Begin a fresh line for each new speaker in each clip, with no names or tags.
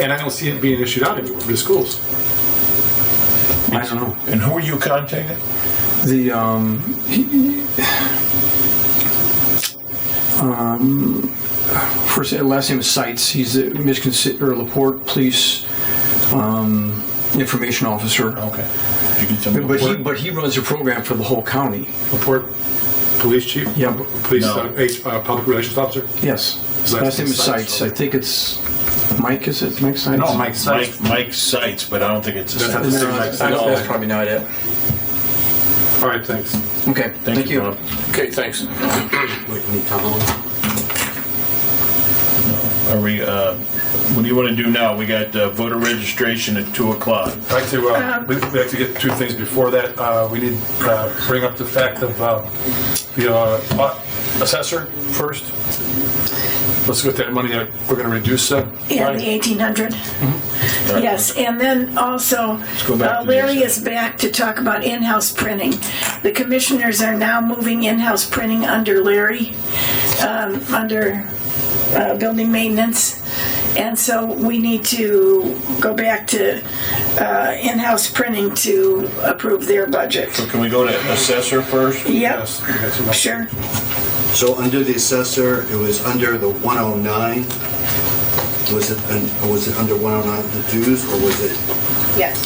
and I don't see it being issued out anymore to schools. I don't know.
And who are you contacting?
The um, um, first last name is Sites. He's the Michigan City or Laporte Police um, Information Officer.
Okay. You get somebody.
But he but he runs a program for the whole county.
Laporte Police Chief?
Yeah.
Police,
No.
uh, H- uh, Public Relations Officer?
Yes.
His last
Last name
name's
is
Seitz.
Sites. I think it's Mike. Is it Mike Sites?
No, Mike Sykes.
Mike, Mike Sites, but I don't think it's the
That's not
same.
the
No,
same
that's,
Mike.
that's probably not it.
All right, thanks.
Okay. Thank, you.
Bob.
Okay, thanks.
Are we, uh, what do you want to do now? We got uh, voter registration at 2 o'clock.
I'd like to,
Um,
uh, we- we'd like to get two things before that. Uh, We need to bring up the fact of uh, the uh, assessor first. Let's get that money that we're going to reduce. uh,
Yeah, the
money.
1800. Yes, and then also,
go back
uh,
to the
Larry is back to talk about in-house printing. The commissioners are now moving in-house printing under Larry, um, under uh, building maintenance. And so we need to go back to uh, in-house printing to approve their budget.
Can we go to assessor first?
Yep,
Yes, that's enough.
sure.
So under the assessor, it was under the 109? Was it, un- was it under 109, the dues, or was it?
Yes.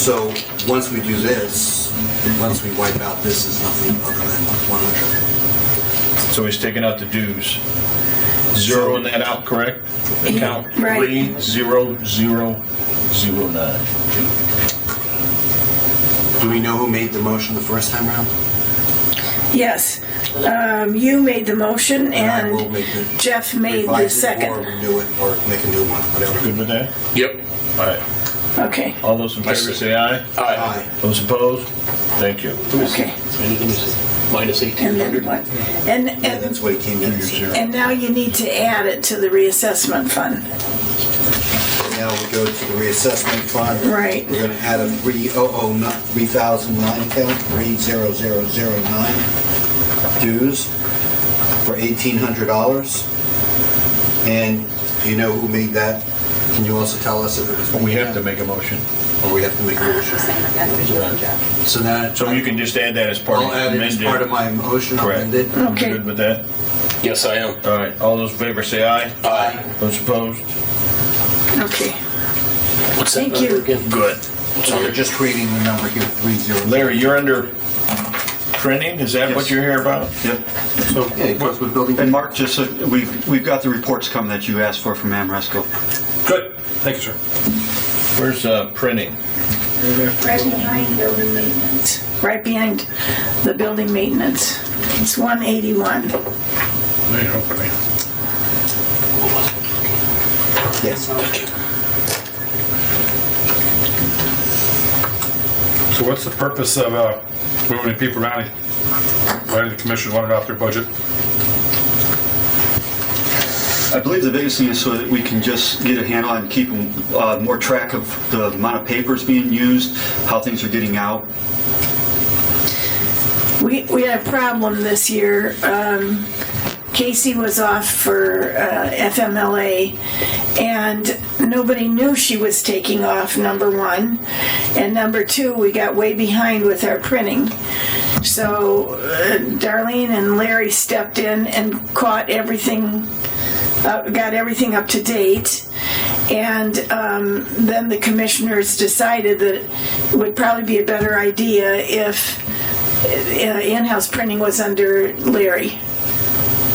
So once we do this, once we wipe out this, is nothing other than 100.
So he's taking out the dues. Zeroing that out, correct? Account
Right.
30009.
Do we know who made the motion the first time around?
Yes. Um, You made the motion
I will
and
make the-
Jeff made the
Revise it Or
second.
renew it, or make a new one, whatever.
Good with that?
Yep.
All right.
Okay,
All those in favor say aye.
Aye.
Aye.
Those opposed? Thank you.
okay.
Minus
And then
1,800.
what? And,
Yeah, that's
and,
what it came in.
and now you need to add it to the reassessment fund.
Now we go to the reassessment fund.
Right.
We're gonna add a 3009, 3,009 count, 30009 dues for $1,800. And do you know who made that? Can you also tell us if it was?
We have to make a motion.
Or we have to make a motion? So that,
So you can just add that as part of
I'll add it as
amended.
part of my motion, I'll
Correct.
amend it.
You
Okay.
Good with that?
Yes, I am.
All right. All those in favor say aye.
Aye.
Those opposed?
Okay,
What's that
Thank
number
you.
again?
Good.
So we're just creating the number here, 30.
Larry, you're under printing? Is that what
Yes.
you're here about?
Yep.
So,
Yeah, it goes with building.
And Mark, just so we've, we've got the reports coming that you asked for from Amresco.
Good, thank you, sir.
Where's uh, printing?
right behind building maintenance, right behind the building maintenance. It's 181.
There you go.
Yes.
So what's the purpose of uh, moving people around? Why did the commission want it off their budget?
I believe the biggest thing is so that we can just get a handle on keeping uh, more track of the amount of papers being used, how things are getting out.
We, we had a problem this year. Um, Casey was off for uh, FMLA, and nobody knew she was taking off, number one. And number two, we got way behind with our printing. So uh, Darlene and Larry stepped in and caught everything, uh, got everything up to date. And um, then the commissioners decided that it would probably be a better idea if uh, in-house printing was under Larry.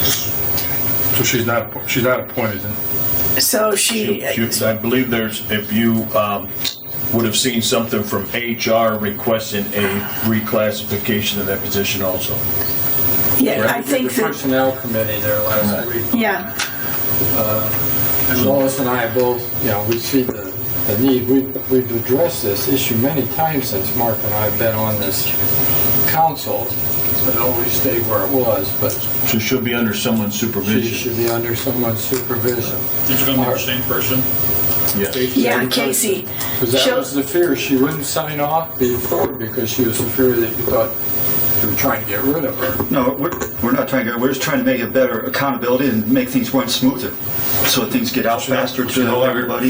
So she's not, she's not appointed, then?
So she,
You- I believe there's, if you um, would have seen something from HR requesting a reclassification of that position also.
yeah, I think
The
that,
personnel committee there last week,
yeah,
and Lois and I both, you know, we see the, the need. We've, we've addressed this issue many times since Mark and I have been on this council. It always stayed where it was, but
So she'll be under someone's
she
supervision.
should be under someone's supervision.
It's going to be the same person.
Yes.
yeah, Casey.
Because that
She'll-
was the fear, she wouldn't sign off before because she was afraid that you thought you were trying to get rid of her.
No, we're, we're not trying to, we're just trying to make it better accountability and make things run smoother. So things get out faster to everybody.